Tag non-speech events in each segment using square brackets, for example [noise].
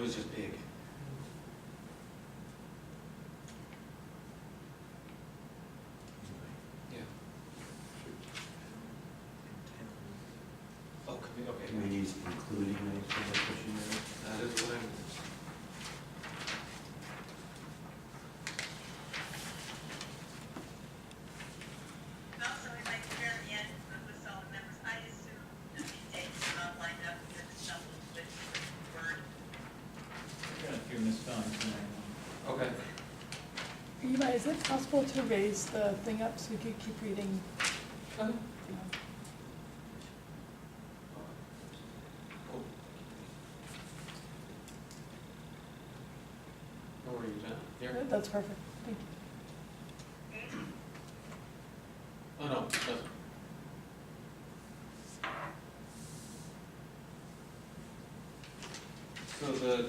was just big. Yeah. Oh, could we, okay. Committees including any public pushing there? That is what I'm. Also, if I could very end with all the members, I assume that the dates are not lined up with the stuff with Word. Got a few missed times tonight. Okay. Eva, is it possible to raise the thing up so we could keep reading? Oh, you know? Where were you, Matt? Here? That's perfect, thank you. Oh, no, it doesn't. So the,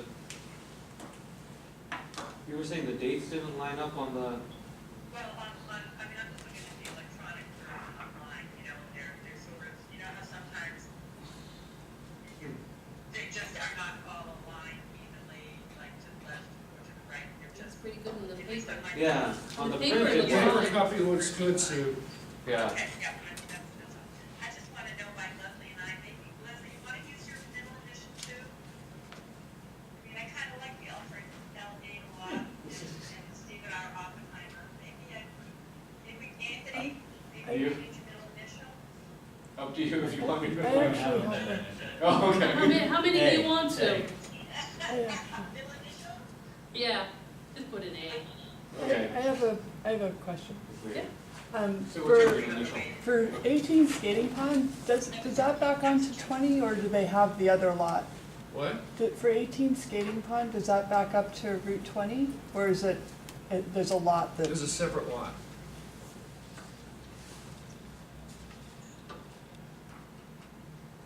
you were saying the dates didn't line up on the, Well, on, on, I mean, I'm just looking at the electronic version online, you know, they're, they're sort of, you know how sometimes they just are not all aligned evenly, like to the left or to the right, they're That's just, pretty good in the at least paper. on my. yeah, on the The paper printed looks one. fine. Paper copy looks good, Sue. Yeah, Okay, yeah, I think that's, that's all. I just want to know why Leslie and I, maybe, Leslie, you want to use your middle edition too? I mean, I kind of like the Alfred L. A. Law and and Stephen R. Oppenheimer, maybe I, maybe Anthony, I- maybe you need your middle initial? up to you if you want me I [laughs] to. actually have it, Oh, How okay. many, how many do A, you want A. I to? actually, [laughs] Middle initial? Yeah, just put an A. I Okay. I have a, I have a question. Yeah. Um, So what's your for, green initial? for eighteen skating pond, does, does that back onto twenty or do they have the other lot? What? Do- For eighteen skating pond, does that back up to Route twenty or is it, it- there's a lot that, There's a separate lot.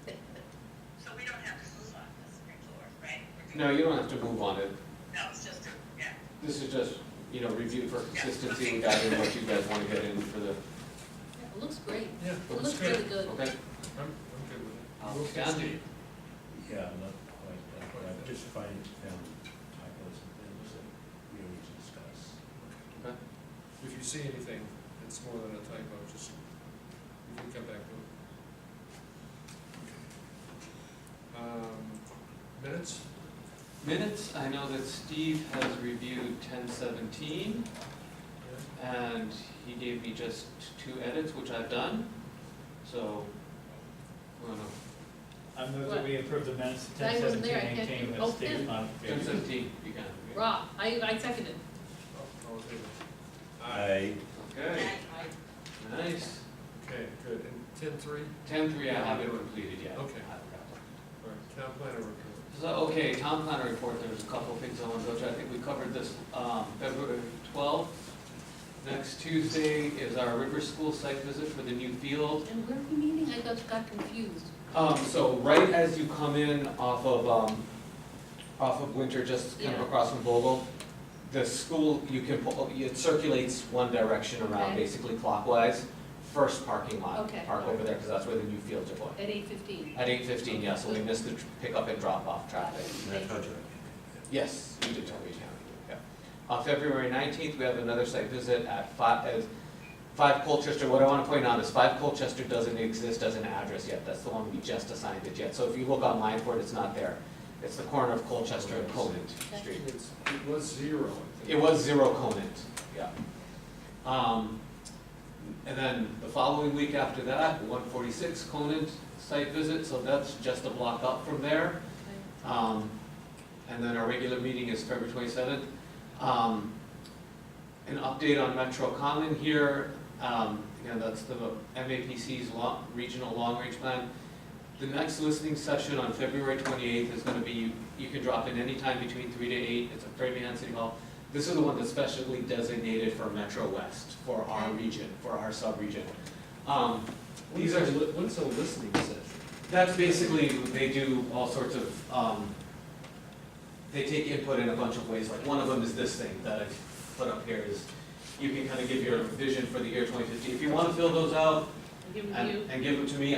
So we don't have to move on this floor, right? We're doing- No, you don't have to move on it. No, it's just, a- yeah. This is just, you know, review for consistency and guide in what you guys want to get in for the, It looks great. Yeah, It looks looks good. really good. okay? I'm, I'm good with it. Um, We'll fix Gandhi. it. Yeah, I'm not quite, that, but I've just finding found typos and things that we need to discuss. Okay. If you see anything, it's more than a typo, just, you can come back to it. Um, Minutes? Minutes, I know that Steve has reviewed ten seventeen, Yeah. and he gave me just two edits, which I've done, so, I don't know, I move that we approve the minutes of That ten wasn't seventeen there, I can't eighteen do- with oh, Steve's yeah. ten modification. seventeen, you can. yeah. Rob, I, I second it. Oh, all in favor? I, Okay, nice. Okay, good, and ten-three, Ten three, I haven't completed yet. Okay. all right, town planner report. So, okay, town planner report, there's a couple of things I want to go to, I think we covered this, um, February twelfth. Next Tuesday is our River School site visit for the new field. And where are we meeting? I got, got confused. Um, so right as you come in off of, um, off of Winter, just kind of Yeah. across from Vogel, the school, you can, pull- it circulates one direction around, Okay. basically clockwise, first parking lot, Okay. park over there, because that's where the new fields are going. At eight fifteen. At eight fifteen, yeah, so we missed the tr- pickup and drop off traffic. I told you. Yes, you did tell me, yeah. On February nineteenth, we have another site visit at five, as, five Colchester, what I wanna point out is five Colchester doesn't exist as an address yet, that's the one we just assigned it yet, so if you look online for it, it's not there. It's the corner of Colchester and Conant Street. It's, it was zero, I It think. was zero Conant, yeah. Um, and then the following week after that, one forty-six Conant site visit, so that's just a block up from there. Um, and then our regular meeting is February twenty-seventh. Um, an update on Metro Common here, um, again, that's the MAPC's lo- regional long-range plan. The next listening session on February twenty-eighth is gonna be, you can drop in anytime between three to eight, it's at Framingham City Hall. This is the one that's specially designated for Metro West, for our region, for our sub-region. Um, these are, What is a listening session? that's basically, they do all sorts of, um, they take input in a bunch of ways, like one of them is this thing that I've put up here is, you can kind of give your vision for the year twenty fifty, if you wanna fill those out Give it to you. and, and give them to me,